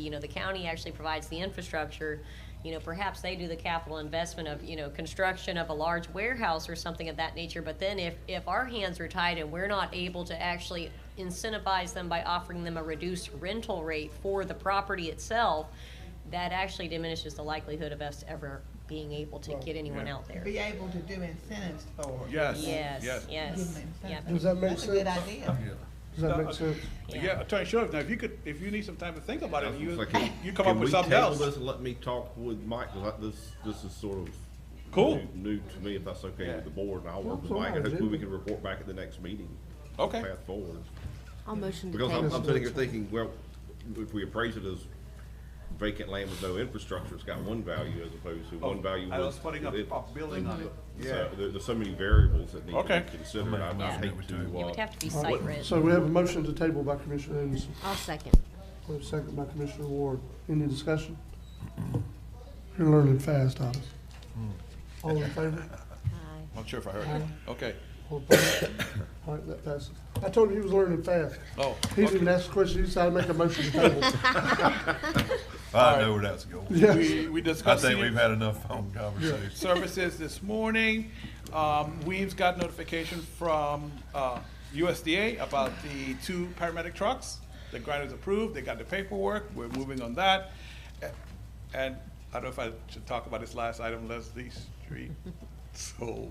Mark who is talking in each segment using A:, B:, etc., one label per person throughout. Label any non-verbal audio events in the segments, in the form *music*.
A: You know, the county actually provides the infrastructure, you know, perhaps they do the capital investment of, you know, construction of a large warehouse or something of that nature, but then if, if our hands are tied and we're not able to actually incentivize them by offering them a reduced rental rate for the property itself, that actually diminishes the likelihood of us ever being able to get anyone
B: Yeah.
A: out there.
C: be able to do incentives for. it.
B: Yes.
A: Yes,
B: Yes.
C: Give
A: yes,
C: them
A: yep.
C: incentives.
D: Does that make
C: That's a good
D: sense?
C: idea.
D: Does that make sense?
A: Yeah.
B: Yeah, Attorney Sheriff, now if you could, if you need some time to think about it, you,
E: It's like,
B: you come up
E: can
B: with
E: we
B: something
E: table
B: else.
E: this and let me talk with Mike, 'Cause I- this, this is sort of.
B: Cool.
E: New new to me, if that's okay with the board, and I'll work with
D: That's all
E: Mike, and
D: right,
E: hopefully we
D: dude.
E: can report back at the next meeting.
B: Okay.
E: Path forward,
F: I'll motion to
E: because I'm,
F: table.
E: I'm sitting here thinking, well, if we appraise it as vacant land with no infrastructure, it's got one value as opposed to one value.
B: Oh, I
E: with-
B: was putting up
E: with it.
B: a building on it.
E: So, there, there's so many variables that need to
B: Okay.
E: be considered, I would hate to,
A: It would
E: uh,
A: have to be site rent.
D: So we have a motion to table by Commissioner Anderson,
F: I'll second.
D: we have a second by Commissioner Ward. Any discussion? You're learning fast, Thomas. All in favor?
F: Aye.
B: I'm not sure if I heard it. Okay.
D: All opposed? All right, that passes. I told you he was learning fast.
B: Oh,
D: He didn't even ask the question, he decided to make a motion to table.
G: I know where that's going.
D: Yes,
B: we, we
G: I
B: discussed
G: think we've
B: senior
G: had enough phone conversations.
B: services this morning. Um, we've got notification from, uh, USDA about the two paramedic trucks. The grant is approved, they got the paperwork, we're moving on that. A- And I don't know if I should talk about this last item, Leslie Street. So,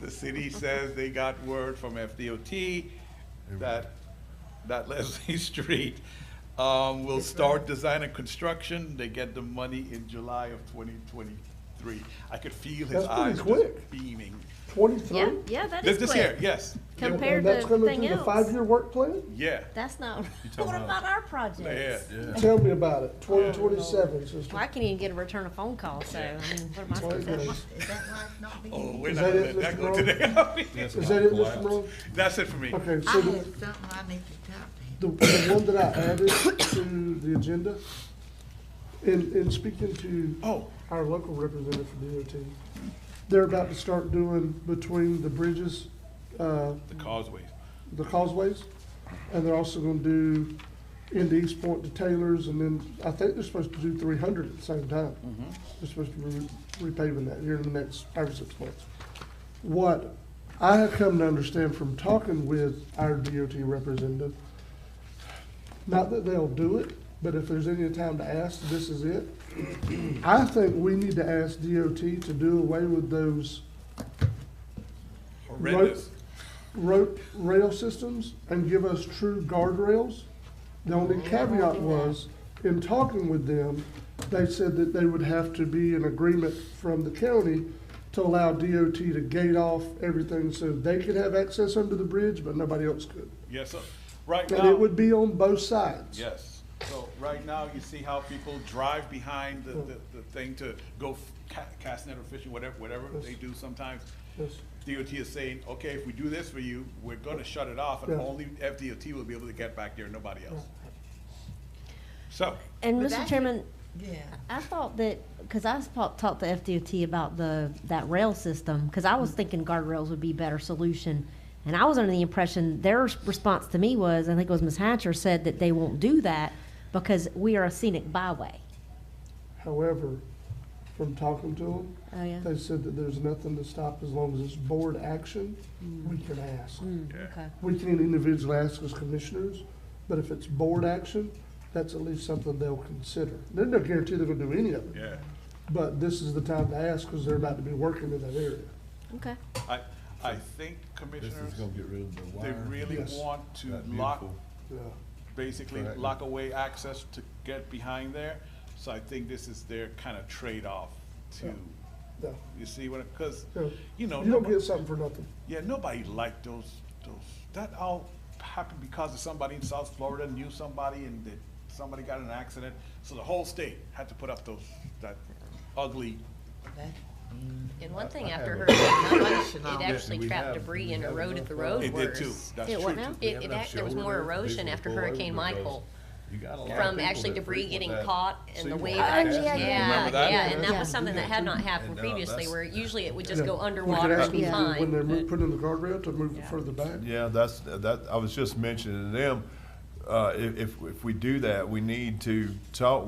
B: the city says they got word from FDOT that, that *laughs* Leslie Street, um, will start design and construction. They get the money in July of twenty twenty-three. I could feel his
D: That's pretty
B: eyes
D: quick.
B: just beaming.
F: Yeah,
D: Twenty-three?
F: yeah, that
B: This,
F: is
B: this year,
F: quick.
B: yes,
F: Compared
D: And that's
F: to
D: coming
F: thing
D: through the
F: else.
D: Five-year work plan?
B: yeah,
F: That's not,
G: talking
F: what
G: about-
F: about our
B: yeah.
F: projects?
G: Yeah.
D: Tell me about it, twenty twenty-seven, sister.
F: Well, I can't even get a return of phone call, so, I mean, what am I
D: Twenty
F: supposed to do?
D: twenty-
C: Is that like not
B: Oh,
C: being,
B: we're
D: Is
B: not
D: that
B: gonna
D: it,
B: let that
D: Mr.
B: go
D: Rhodes?
B: today. *laughs*
D: Is that it, Mr. Monroe?
B: That's it for me.
D: Okay,
C: I
D: so the-
C: have something I need to talk to him.
D: The, the one that I added to the agenda, in, in speaking to
B: Oh,
D: our local representative for DOT, they're about to start doing between the bridges, uh,
B: the causeways.
D: the causeways, and they're also gonna do into East Point to Taylor's, and then I think they're supposed to do three hundred at the same time. They're supposed to be re- repaving that here in the next five or six months. What I have come to understand from talking with our DOT representative, not that they'll do it, but if there's any time to ask, this is it. I think we need to ask DOT to do away with those
B: Horrendous.
D: rope rail systems and give us true guardrails. The only caveat was, in talking with them, they said that they would have to be in agreement from the county to allow DOT to gate off everything so they could have access under the bridge, but nobody else could.
B: Yes, sir. Right now.
D: And it would be on both sides.
B: Yes. So right now, you see how people drive behind the, the, the thing to go f- ca- cast net or fishing, whatever, whatever they do sometimes.
D: Yes.
B: DOT is saying, okay, if we do this for you, we're gonna shut it off
D: Yeah.
B: and only FDOT will be able to get back there, nobody else. So,
F: And
C: But
F: Mr.
C: that-
F: Chairman,
C: Yeah.
F: I thought that, because I talked, talked to FDOT about the, that rail system, because I was thinking guardrails would be a better solution. And I was under the impression, their response to me was, I think it was Ms. Hatcher said that they won't do that because we are a scenic byway.
D: However, from talking to them,
F: Oh, yeah?
D: they said that there's nothing to stop as long as it's board action, we can ask.
F: Mm. Okay.
D: We can individually ask as commissioners, but if it's board action, that's at least something they'll consider. There's no guarantee they're gonna do any of it,
B: yeah,
D: but this is the time to ask, because they're about to be working in that area.
F: Okay.
B: I, I think
G: This
B: commissioners,
G: is gonna get rid of the
B: they
G: wire.
B: really
D: Yes.
B: want to
G: That
B: lock
G: beautiful.
D: Yeah.
B: basically
G: Correct.
B: lock away access to get behind there. So I think this is their kind of trade-off to,
D: Yeah.
B: you see, when, because,
D: Yeah.
B: you know.
D: You don't
B: nobody-
D: get something for nothing.
B: Yeah, nobody liked those, those, that all happened because of somebody in South Florida knew somebody and that somebody got in an accident. So the whole state had to put up those, that ugly,
C: That-
A: And one thing
G: I
A: after
G: have
A: Hurricane
C: Listen,
A: Irma,
C: I'll-
A: it actually
G: we
A: trapped
G: have-
A: debris
G: we
A: and
G: have
A: eroded
G: enough
A: the
G: of-
A: road
B: it did too,
A: worse.
B: that's
F: It
B: true.
F: what
B: too.
F: now?
A: It- it act- there was more erosion after Hurricane Michael from actually debris getting caught and the wave action.
F: yeah, yeah.
A: Yeah,
F: Remember
B: that?
A: yeah, and that
F: Yeah.
A: was something that had not happened
G: And, uh,
A: previously,
G: that's-
A: where usually it would
D: Yeah.
A: just go
D: We could
A: underwater
D: ask
A: and be
D: them to- When
A: fine. Mm.
D: they're putting in the guardrail, to move it further back.
G: Yeah, that's, that, I was just mentioning to them, uh, if, if, if we do that, we need to talk